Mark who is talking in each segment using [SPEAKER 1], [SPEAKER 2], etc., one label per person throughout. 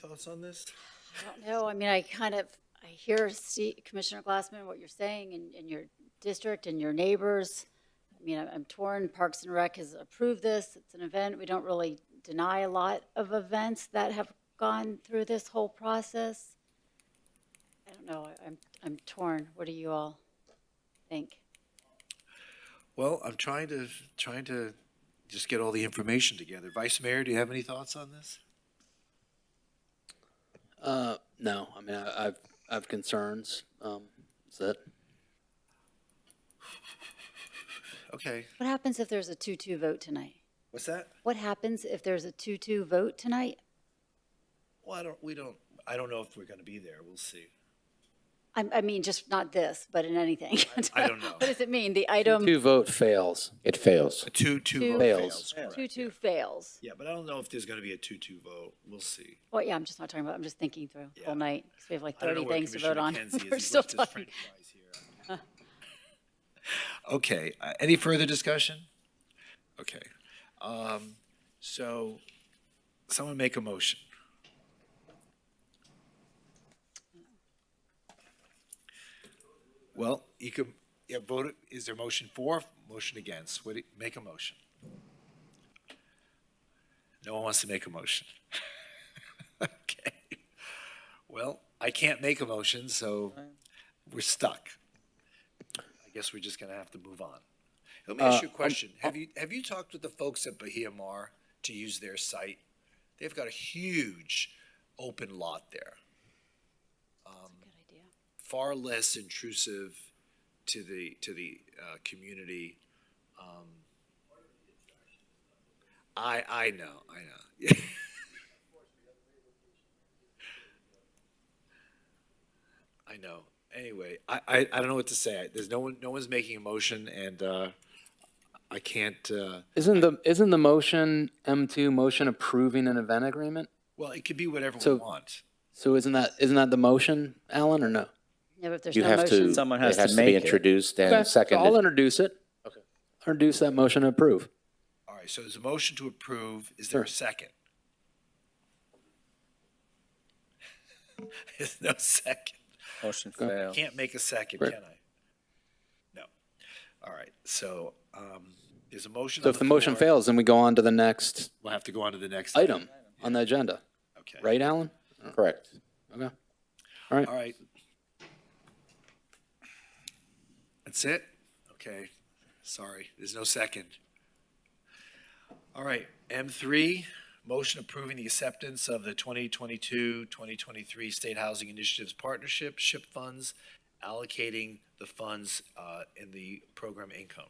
[SPEAKER 1] thoughts on this?
[SPEAKER 2] I don't know, I mean, I kind of, I hear Ste- Commissioner Glassman, what you're saying, and, and your district and your neighbors. I mean, I'm I'm torn, Parks and Rec has approved this, it's an event, we don't really deny a lot of events that have gone through this whole process. I don't know, I- I'm, I'm torn, what do you all think?
[SPEAKER 1] Well, I'm trying to, trying to just get all the information together. Vice Mayor, do you have any thoughts on this?
[SPEAKER 3] Uh, no, I mean, I, I've, I've concerns. Um, is that,
[SPEAKER 1] Okay,
[SPEAKER 2] What happens if there's a two-two vote tonight?
[SPEAKER 1] what's that?
[SPEAKER 2] What happens if there's a two-two vote tonight?
[SPEAKER 1] Well, I don't, we don't, I don't know if we're gonna be there, we'll see.
[SPEAKER 2] I, I mean, just not this, but in anything.
[SPEAKER 1] I don't know.
[SPEAKER 2] What does it mean? The item
[SPEAKER 3] two vote fails.
[SPEAKER 4] It fails.
[SPEAKER 1] A two, two
[SPEAKER 2] Two.
[SPEAKER 1] vote
[SPEAKER 3] Fails.
[SPEAKER 1] fails. correct.
[SPEAKER 2] two-two fails.
[SPEAKER 1] Yeah, but I don't know if there's gonna be a two-two vote, we'll see.
[SPEAKER 2] Well, yeah, I'm just not talking about, I'm just thinking through the whole
[SPEAKER 1] Yeah.
[SPEAKER 2] night, 'cause we have like
[SPEAKER 1] I don't know
[SPEAKER 2] 30
[SPEAKER 1] where
[SPEAKER 2] things to
[SPEAKER 1] Commissioner
[SPEAKER 2] vote on.
[SPEAKER 1] Mackenzie is. He
[SPEAKER 2] We're still
[SPEAKER 1] left his
[SPEAKER 2] talking.
[SPEAKER 1] french fries here. Okay, uh, any further discussion? Okay, um, so someone make a motion. Well, you could, yeah, vote, it- is there motion for, motion against? What, do you- make a motion. No one wants to make a motion. Okay. Well, I can't make a motion, so we're stuck. I guess we're just gonna have to move on. Let me ask you a question. Have you, have you talked with the folks at Bahia Mar to use their site? They've got a huge open lot there,
[SPEAKER 2] Good idea.
[SPEAKER 1] far less intrusive to the, to the, uh, community. Um, I, I know, I know. I know. Anyway, I, I, I don't know what to say. I- There's no one, no one's making a motion and, uh, I can't, uh,
[SPEAKER 3] Isn't the, isn't the motion M2 motion approving an event agreement?
[SPEAKER 1] well, it could be whatever we
[SPEAKER 3] So-
[SPEAKER 1] want.
[SPEAKER 3] So isn't that, isn't that the motion, Alan, or no?
[SPEAKER 2] Yeah, but if there's
[SPEAKER 4] You
[SPEAKER 2] no
[SPEAKER 4] have to.
[SPEAKER 2] motion,
[SPEAKER 5] Someone has
[SPEAKER 4] it
[SPEAKER 5] to
[SPEAKER 4] has
[SPEAKER 5] make
[SPEAKER 4] be
[SPEAKER 5] it.
[SPEAKER 4] introduced
[SPEAKER 3] Okay,
[SPEAKER 4] and
[SPEAKER 3] so I'll
[SPEAKER 4] seconded.
[SPEAKER 3] introduce it. Okay. Introduce that motion to approve.
[SPEAKER 1] All right, so there's a motion to approve. Is there a second? There's no second.
[SPEAKER 5] Motion failed.
[SPEAKER 1] Can't make a second,
[SPEAKER 3] Right.
[SPEAKER 1] can I? No. All right, so, um, there's a motion.
[SPEAKER 3] So
[SPEAKER 1] on
[SPEAKER 3] if the motion
[SPEAKER 1] floor.
[SPEAKER 3] fails, then we go on to the next
[SPEAKER 1] We'll have to go on to the next.
[SPEAKER 3] item on the agenda,
[SPEAKER 1] Okay.
[SPEAKER 3] right, Alan?
[SPEAKER 4] Correct.
[SPEAKER 3] Okay.
[SPEAKER 1] All right. That's it? Okay, sorry, there's no second. All right, M3, motion approving the acceptance of the 2022, 2023 State Housing Initiatives Partnership SHIP funds, allocating the funds uh, in the program income.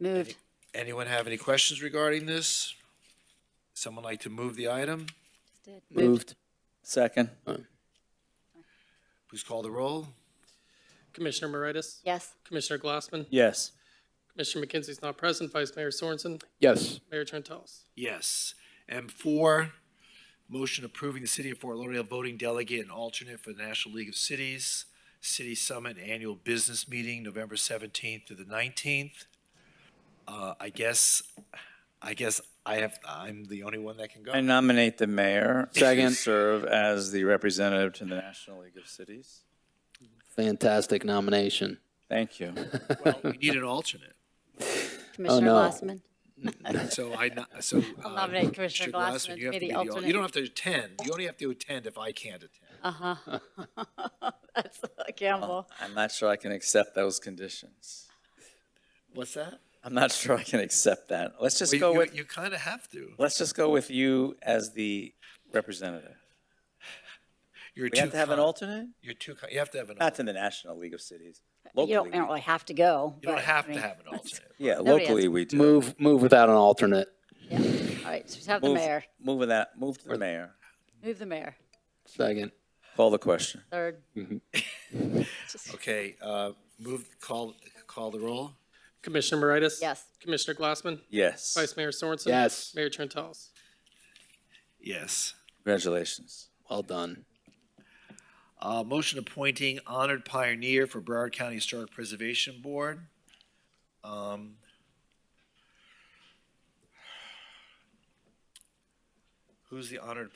[SPEAKER 2] moved.
[SPEAKER 1] Anyone have any questions regarding this? Someone like to move the item?
[SPEAKER 2] Just did.
[SPEAKER 3] Moved.
[SPEAKER 5] Second.
[SPEAKER 1] Please call the roll.
[SPEAKER 6] Commissioner Moritas?
[SPEAKER 2] Yes,
[SPEAKER 6] Commissioner Glassman?
[SPEAKER 5] Yes.
[SPEAKER 6] Commissioner McKenzie's not present. Vice Mayor Sorensen?
[SPEAKER 3] Yes.
[SPEAKER 6] Mayor Trentalles?
[SPEAKER 1] Yes. M four, motion approving the city of Fort Lauderdale voting delegate and alternate for the National League of Cities, City Summit Annual Business Meeting, November seventeenth to the nineteenth. Uh, I guess, I guess I have, I'm the only one that can go.
[SPEAKER 5] I nominate the mayor to
[SPEAKER 3] Second.
[SPEAKER 5] serve as the representative to the National League of Cities.
[SPEAKER 3] Fantastic nomination.
[SPEAKER 5] Thank you.
[SPEAKER 1] Well, We need an alternate.
[SPEAKER 2] Commissioner
[SPEAKER 3] no.
[SPEAKER 2] Glassman.
[SPEAKER 1] So I, no- so. uh,
[SPEAKER 2] nominate Commissioner Glassman
[SPEAKER 1] you have
[SPEAKER 2] to be
[SPEAKER 1] to al-
[SPEAKER 2] the alternate.
[SPEAKER 1] You don't have to attend. You only have to attend if I can't attend.
[SPEAKER 2] Uh-huh. That's a gamble.
[SPEAKER 5] I'm not sure I can accept those conditions.
[SPEAKER 1] What's that?
[SPEAKER 5] I'm not sure I can accept that. Let's just
[SPEAKER 1] Well,
[SPEAKER 5] go
[SPEAKER 1] You,
[SPEAKER 5] with,
[SPEAKER 1] you kind of have to.
[SPEAKER 5] let's just go with you as the representative.
[SPEAKER 1] You're
[SPEAKER 5] We have
[SPEAKER 1] too
[SPEAKER 5] to have an
[SPEAKER 1] con-
[SPEAKER 5] alternate?
[SPEAKER 1] You're too, con- you have to have an.
[SPEAKER 5] Not
[SPEAKER 1] alternate.
[SPEAKER 5] to the National League of Cities.
[SPEAKER 2] You don't,
[SPEAKER 5] Locally,
[SPEAKER 2] you
[SPEAKER 5] we-
[SPEAKER 2] don't really have to go.
[SPEAKER 1] You don't
[SPEAKER 2] but, I
[SPEAKER 1] have to
[SPEAKER 2] mean,
[SPEAKER 1] have an alternate.
[SPEAKER 5] yeah,
[SPEAKER 2] Nobody has
[SPEAKER 5] locally
[SPEAKER 2] to.
[SPEAKER 5] we do.
[SPEAKER 3] Move, move without an alternate.
[SPEAKER 2] yeah. All right, so just have the
[SPEAKER 5] Move-
[SPEAKER 2] mayor,
[SPEAKER 5] Move with that, move to the mayor.
[SPEAKER 2] move the mayor,
[SPEAKER 3] Second.
[SPEAKER 5] Call the question.
[SPEAKER 2] third.
[SPEAKER 1] Okay, uh, move, call, call the roll?
[SPEAKER 6] Commissioner Moritas?
[SPEAKER 2] Yes.
[SPEAKER 6] Commissioner Glassman?
[SPEAKER 5] Yes.
[SPEAKER 6] Vice Mayor Sorensen?
[SPEAKER 3] Yes.
[SPEAKER 6] Mayor Trentalles?
[SPEAKER 1] Yes.
[SPEAKER 5] Congratulations.
[SPEAKER 3] Well done.
[SPEAKER 1] Uh, motion appointing honored pioneer for Broward County Historic Preservation Board. Um, Who's the honored